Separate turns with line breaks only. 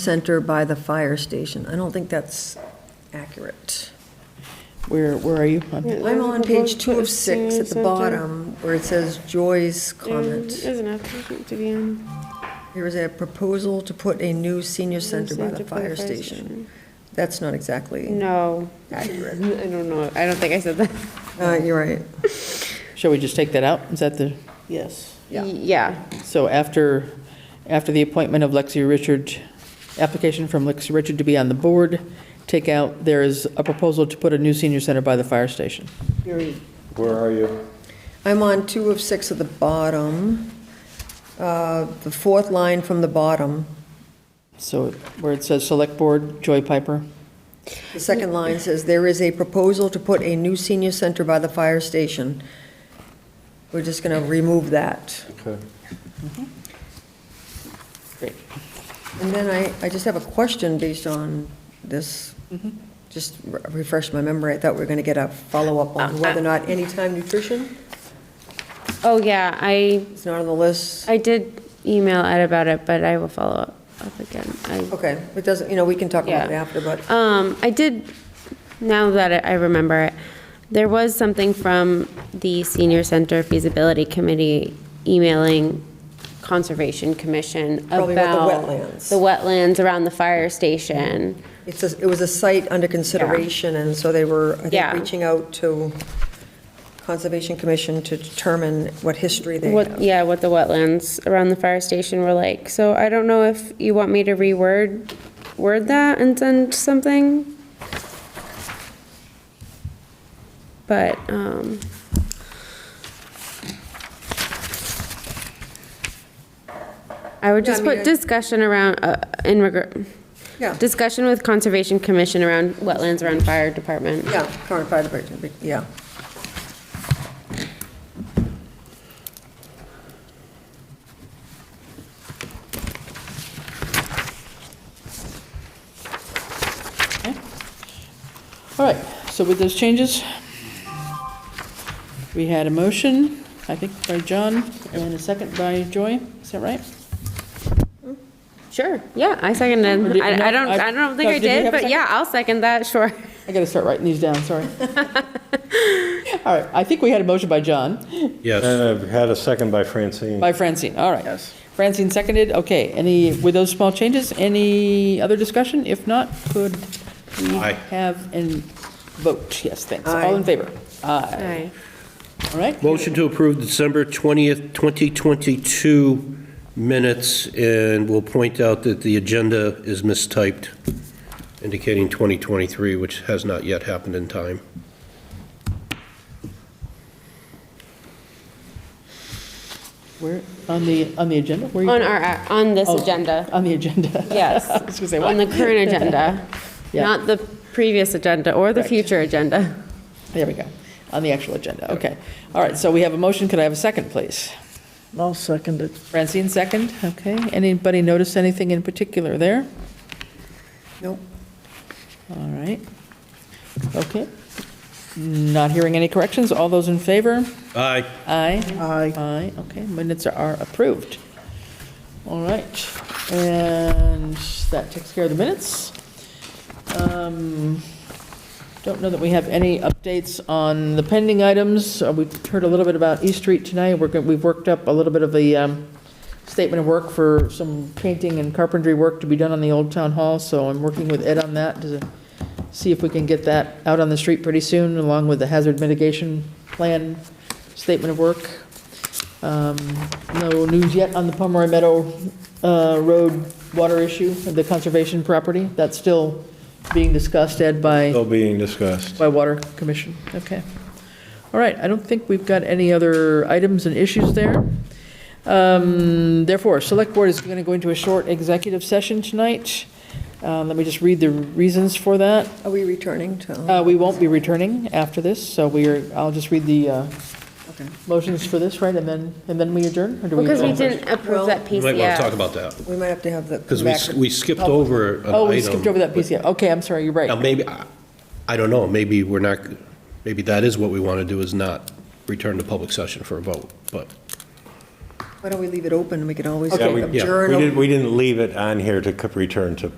center by the fire station. I don't think that's accurate.
Where, where are you?
I'm on page two of six at the bottom where it says Joy's comment.
There's enough to be on.
Here is a proposal to put a new senior center by the
Center
fire station. That's not exactly
No, I
accurate.
don't know, I don't think I said that.
Uh, you're right.
Shall we just take that out? Is that the? Yes.
Yeah.
Yeah,
So after, after the appointment of Lexi Richard, application from Lexi Richard to be on the board, take out, there is a proposal to put a new senior center by the fire station.
Where are you?
I'm on two of six at the bottom. Uh, The fourth line from the bottom,
So where it says Select Board, Joy Piper.
the second line says, "There is a proposal to put a new senior center by the fire station." We're just going to remove that.
Okay.
Great.
And then I, I just have a question based on this.
Mm-hmm.
Just re- refresh my memory. I thought we were going to get a follow-up
Uh,
on whether or not Anytime Nutrition
oh, yeah, I,
is not on the list.
I did email Ed about it, but I will follow up, up again. I
Okay, it doesn't, you know, we can talk about it
Yeah.
after, but
Um, I did, now that I- I remember it, there was something from the Senior Center Feasibility Committee emailing Conservation Commission about.
Probably about the wetlands.
The wetlands around the fire station.
it's, a- it was a site under consideration, and so they were, I think,
Yeah.
reaching out to Conservation Commission to determine what history they
What,
have.
yeah, what the wetlands around the fire station were like. So I don't know if you want me to reword, word that and send something? But, um, I would
Yeah, I
just
mean,
put
I-
discussion around, uh, in regard,
Yeah,
discussion with Conservation Commission around wetlands around fire department.
yeah, current fire department, yeah.
All right, so with those changes, we had a motion, I think by John, and a second by Joy, is that right?
Sure, yeah, I
Or
seconded.
did-
I, I
no,
don't,
I-
I don't think I
Doug, did you
did,
have a
but
second?
yeah, I'll second that, sure.
I gotta start writing these down, sorry. All right, I think we had a motion by John,
And
Yes.
I've had a second by Francine.
by Francine, all right. Yes. Francine seconded, okay, any, with those small changes, any other discussion? If not, could we
Aye.
have an vote? Yes, thanks,
Aye.
all in favor? Aye, all right?
Motion to approve December 20th, 2022 minutes, and we'll point out that the agenda is mistyped, indicating 2023, which has not yet happened in time.
Where, on the, on the agenda? Where you-
On our, on this
Oh,
agenda,
On the agenda.
yes.
I was gonna say,
On
what?
the current agenda,
Yeah.
not the previous agenda or the
Correct.
future agenda.
There we go, on the actual agenda, okay. All right, so we have a motion, could I have a second, please?
I'll second it.
Francine, second, okay. Anybody notice anything in particular there?
Nope.
All right, okay. Not hearing any corrections, all those in favor?
Aye.
Aye.
Aye.
Aye, okay, minutes are approved. All right, and that takes care of the minutes. Um, Don't know that we have any updates on the pending items. Uh, We've heard a little bit about East Street tonight. We're, go- we've worked up a little bit of the um, statement of work for some painting and carpentry work to be done on the old town hall, so I'm working with Ed on that to see if we can get that out on the street pretty soon, along with the hazard mitigation plan statement of work. Um, No news yet on the Pomeroy Meadow uh, Road water issue, the conservation property. That's still being discussed, Ed, by
Still being discussed.
by Water Commission, okay. All right, I don't think we've got any other items and issues there. Um, Therefore, Select Board is going to go into a short executive session tonight. Uh, Let me just read the reasons for that.
Are we returning to?
Uh, We won't be returning after this, so we are, I'll just read the uh,
Okay.
motions for this, right, and then, and then we adjourn? or do we
Because we
adjourn first?
didn't approve
Well-
that
You
piece
might want to
yet.
talk about that,
We might have to have the.
because
come back-
we we skipped over an item.
Oh, we skipped over that piece, yeah, okay, I'm sorry, you're right.
Now, maybe, I- I don't know, maybe we're not, maybe that is what we want to do, is not return to public session for a vote, but
Why don't we leave it open, and we can always
Yeah, we-
adjourn.
We didn't, we didn't leave it on here to c- return to